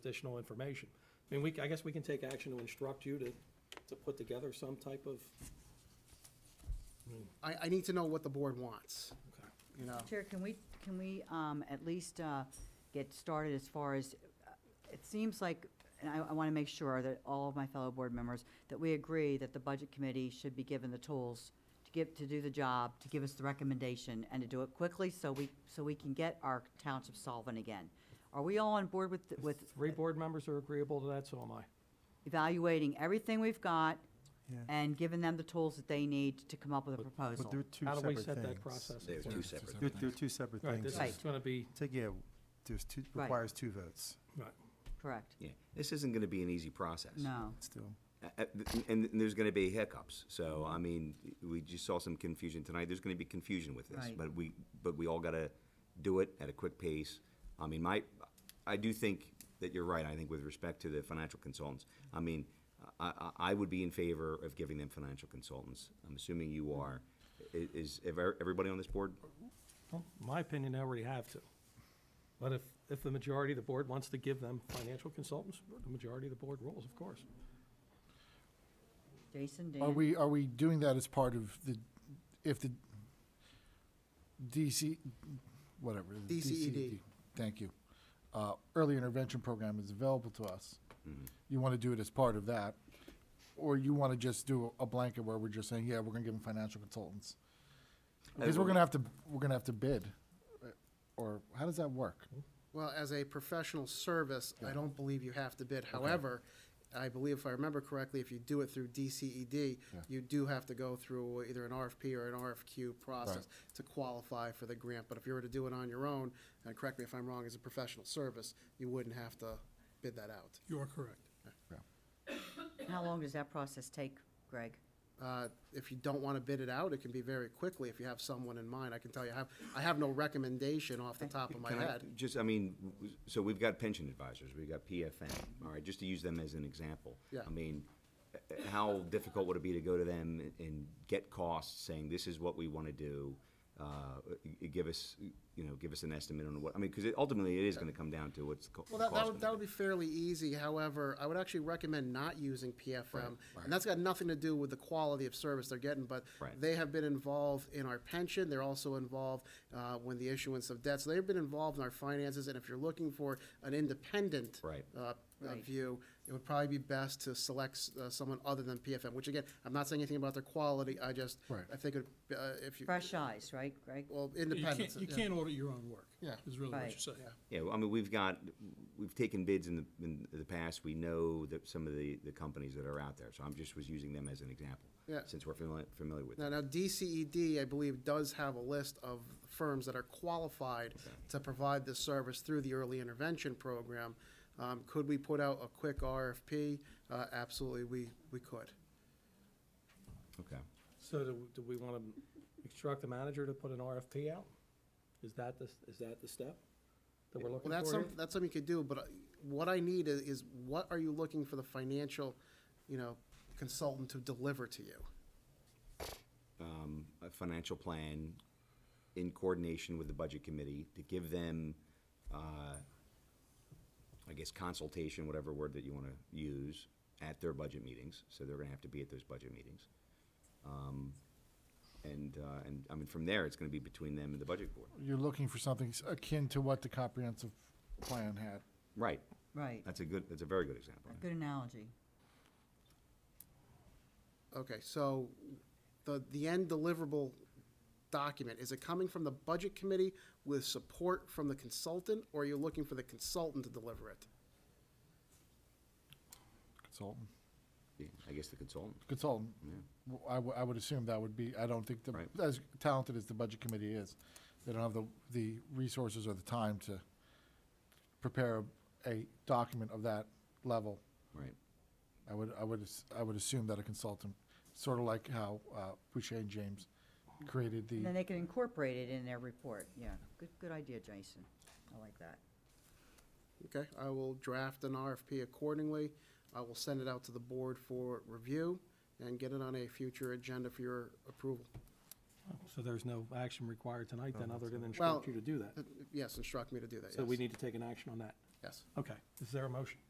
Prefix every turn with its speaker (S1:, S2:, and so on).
S1: additional information. I mean, we, I guess we can take action to instruct you to, to put together some type of,
S2: I, I need to know what the board wants,
S1: okay.
S2: you know?
S3: Chair, can we, can we um, at least uh, get started as far as, uh, it seems like, and I, I want to make sure that all of my fellow board members, that we agree that the budget committee should be given the tools to give, to do the job, to give us the recommendation, and to do it quickly so we, so we can get our township solvent again. Are we all on board with, with
S1: Three board members are agreeable to that, so am I.
S3: evaluating everything we've got
S4: Yeah.
S3: and giving them the tools that they need to come up with a
S4: But
S3: proposal?
S4: they're two
S1: How do we
S4: separate
S1: set that
S4: things.
S1: process?
S5: They're two separate.
S4: They're, they're two separate
S1: Right,
S4: things.
S1: this
S3: Right.
S1: is gonna be,
S4: Take, yeah, there's two,
S3: Right.
S4: requires two votes
S1: right,
S3: Correct.
S5: Yeah, this isn't gonna be an easy process.
S3: No.
S4: still.
S5: Uh, uh, th- And there's gonna be hiccups, so, I mean, we just saw some confusion tonight, there's gonna be confusion with this.
S3: Right.
S5: But we, but we all gotta do it at a quick pace. I mean, my, I do think that you're right, I think with respect to the financial consultants. I mean, I, I, I would be in favor of giving them financial consultants, I'm assuming you are. I- Is, if e- everybody on this board?
S1: well, my opinion, I already have to. But if, if the majority of the board wants to give them financial consultants, the majority of the board rules, of course.
S3: Jason, Dan?
S6: Are we, are we doing that as part of the, if the DC, whatever? the
S2: DCED.
S6: Thank you. Uh, Early intervention program is available to us. You want to do it as part of that? Or you want to just do a blanket where we're just saying, yeah, we're going to give them financial consultants? Because we're going to have to, we're going to have to bid. uh, Or how does that work?
S2: Well, as a professional service, I don't believe you have to bid. However, I believe if I remember correctly, if you do it through DCED, you do have to go through either an RFP or an RFQ process to qualify for the grant. But if you were to do it on your own, and correct me if I'm wrong, as a professional service, you wouldn't have to bid that out.
S7: You are correct.
S3: How long does that process take, Greg?
S2: Uh, If you don't want to bid it out, it can be very quickly if you have someone in mind. I can tell you, I have, I have no recommendation off the top of my
S5: Can I-
S2: head.
S5: Just, I mean, w- so we've got pension advisors, we've got PFN, all right, just to use them as an example.
S2: Yeah.
S5: I mean, uh, uh, how difficult would it be to go to them and- and get costs, saying this is what we want to do? uh, y- y- Give us, you know, give us an estimate on what, I mean, because ultimately it is going to come down to what's co-
S2: Well, that, that
S5: cost
S2: would, that would be fairly easy, however, I would actually recommend not using PFM. And that's got nothing to do with the quality of service they're getting, but
S5: Right.
S2: they have been involved in our pension, they're also involved, uh, when the issuance of debt, so they've been involved in our finances, and if you're looking for an independent.
S5: Right.
S2: uh, Uh,
S3: Right.
S2: view, it would probably be best to select, s- uh, someone other than PFM, which again, I'm not saying anything about their quality, I just,
S6: Right.
S2: I think, it uh, if you.
S3: Fresh eyes, right, Greg?
S2: Well,
S7: You
S2: independent.
S7: can't, you can't audit your own work.
S2: Yeah.
S7: Is really what
S3: Right.
S7: you're saying.
S5: Yeah, well, I mean, we've got, we've taken bids in the, in the past, we know that some of the, the companies that are out there, so I'm just was using them as an example.
S2: Yeah.
S5: Since we're familiar, familiar with
S2: Now,
S5: them.
S2: now DCED, I believe, does have a list of firms that are qualified to provide this service through the early intervention program. Um, could we put out a quick RFP? Uh, absolutely, we, we could.
S5: Okay.
S1: So do, do we wanna instruct the manager to put an RFP out? Is that the, is that the step that we're looking
S2: Well,
S1: for
S2: that's some,
S1: here?
S2: that's something you could do, but uh, what I need is, is what are you looking for the financial, you know, consultant to deliver to you?
S5: um, a financial plan in coordination with the budget committee to give them, uh, I guess consultation, whatever word that you want to use, at their budget meetings. So they're going to have to be at those budget meetings. Um, And, uh, and, I mean, from there, it's going to be between them and the budget board.
S6: You're looking for something s- akin to what the comprehensive plan had.
S5: Right.
S3: Right.
S5: That's a good, that's a very good example.
S3: Good analogy.
S2: Okay, so the, the end deliverable document, is it coming from the budget committee with support from the consultant, or are you looking for the consultant to deliver it?
S6: Consultant.
S5: Yeah, I guess the consultant.
S6: consultant. W- I wou- I would assume that would be, I don't think, the-
S5: Right.
S6: as talented as the budget committee is, they don't have the, the resources or the time to prepare a- a document of that level.
S5: Right.
S6: I would, I would, as- I would assume that a consultant, sort of like how uh, Boucher and James created
S3: And then
S6: the,
S3: they can incorporate it in their report, yeah. Good, good idea, Jason. I like that.
S2: Okay, I will draft an RFP accordingly. I will send it out to the board for review and get it on a future agenda for your approval.
S1: So there's no action required tonight then, other than
S2: Well,
S1: instruct you to do that?
S2: Uh, Yes, instruct me to do that, yes.
S1: So we need to take an action on that.
S2: yes.
S1: Okay, is there a motion?